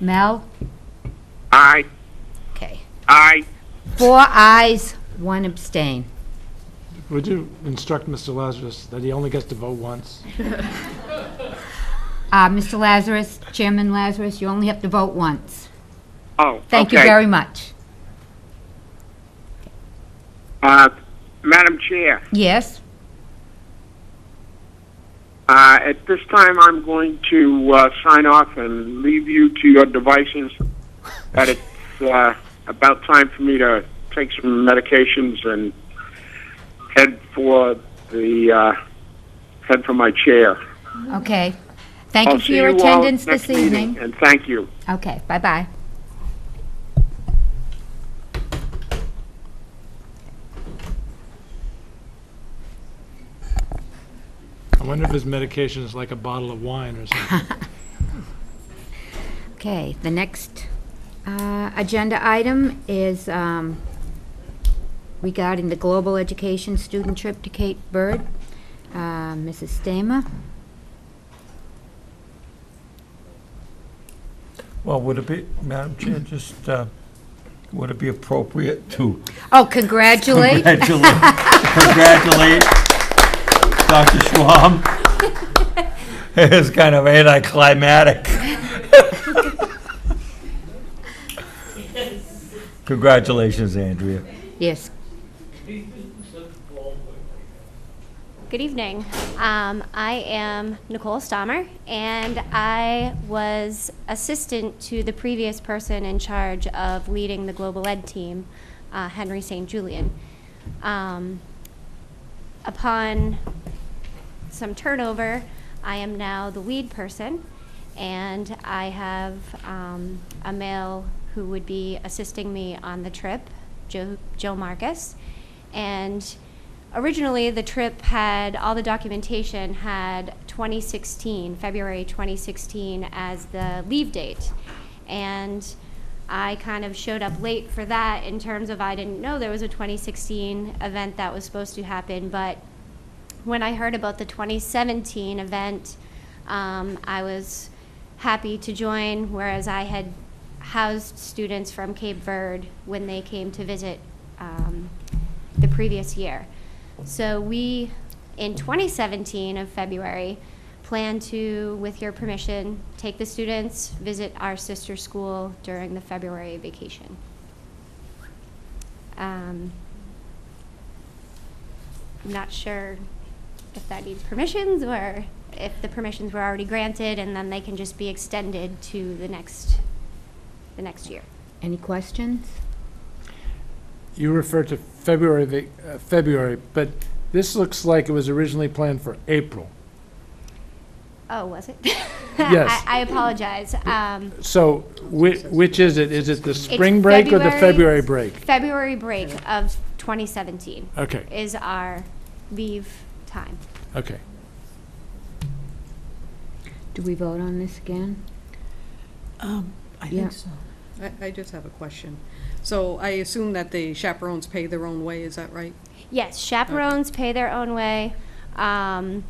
Mel? Aye. Okay. Aye. Four ayes, one abstain. Would you instruct Mr. Lazarus that he only gets to vote once? Uh, Mr. Lazarus, Chairman Lazarus, you only have to vote once. Oh, Thank you okay. very much. Uh, Madam Chair, Yes? uh, at this time, I'm going to uh, sign off and leave you to your devices. But it's uh, about time for me to take some medications and head for the uh, head for my chair. Okay. Thank I'll you for see your all attendance next this meeting, evening. And thank you. Okay, bye-bye. I wonder if his medication is like a bottle of wine or something. Okay, the next uh, agenda item is um, regarding the Global Education Student Trip to Cape Verde. Uh, Mrs. Stamer? Well, would it be, Madam Chair, just, uh, would it be appropriate to Oh, congratulate. congratulate, congratulate Dr. Schwam? It was kind of anticlimactic. Congratulations, Andrea. Yes. Good evening. Um, I am Nicole Stommer, and I was assistant to the previous person in charge of leading the global ed team, uh, Henry St. Julian. Um, upon some turnover, I am now the lead person, and I have um, a male who would be assisting me on the trip, Joe, Joe Marcus. And originally, the trip had all the documentation had 2016, February 2016, as the leave date. And I kind of showed up late for that in terms of I didn't know there was a 2016 event that was supposed to happen, but when I heard about the 2017 event, um, I was happy to join, whereas I had housed students from Cape Verde when they came to visit um, the previous year. So we, in 2017 of February, plan to, with your permission, take the students, visit our sister school during the February vacation. Um, I'm not sure if that needs permissions or if the permissions were already granted and then they can just be extended to the next, the next year. Any questions? You refer to February, va- uh, February, but this looks like it was originally planned for April. Oh, was it? Yes. I, I apologize. Um, So whi- which is it? Is it the it's spring break or the February break? February break of 2017 Okay, is our leave time. okay. Do we vote on this again? Um, I Yeah. think so. I, I just have a question. So I assume that the chaperones pay their own way, is that right? Yes, chaperones pay their own way. Um,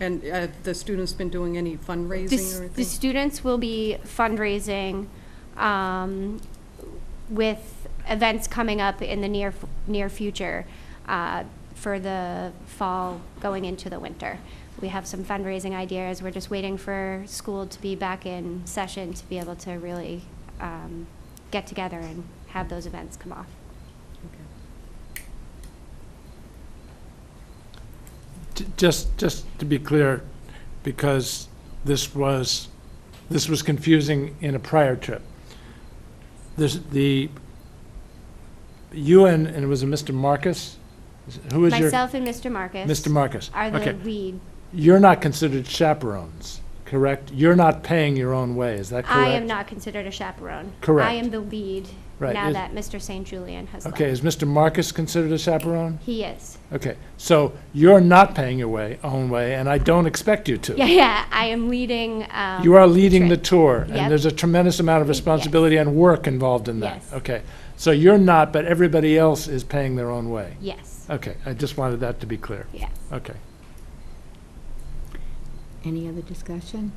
And uh, the students been doing any The, fundraising s- or the anything? students will be fundraising um, with events coming up in the near, f- near future uh, for the fall going into the winter. We have some fundraising ideas. We're just waiting for school to be back in session to be able to really um, get together and have those events come off. J- Just, just to be clear, because this was, this was confusing in a prior trip. This, the UN, and it was a Mr. Marcus? Who was your? Myself and Mr. Marcus Mr. Marcus. are the Okay. lead. You're not considered chaperones, correct? You're not paying your own way, is that correct? I am not considered a chaperone. I Correct. am the lead Right, now is- that Mr. St. Julian has left. Okay, is Mr. Marcus considered a chaperone? He is. Okay, so you're not paying your way, own way, and I don't expect you to. Yeah, yeah. I am leading. Um, You are leading the trip. tour, Yep. and there's a tremendous amount of responsibility and work involved in that. Yes. Okay, so you're not, but everybody else is paying their own way. Yes. Okay, I just wanted that to be clear. Yeah. Okay. Any other discussion?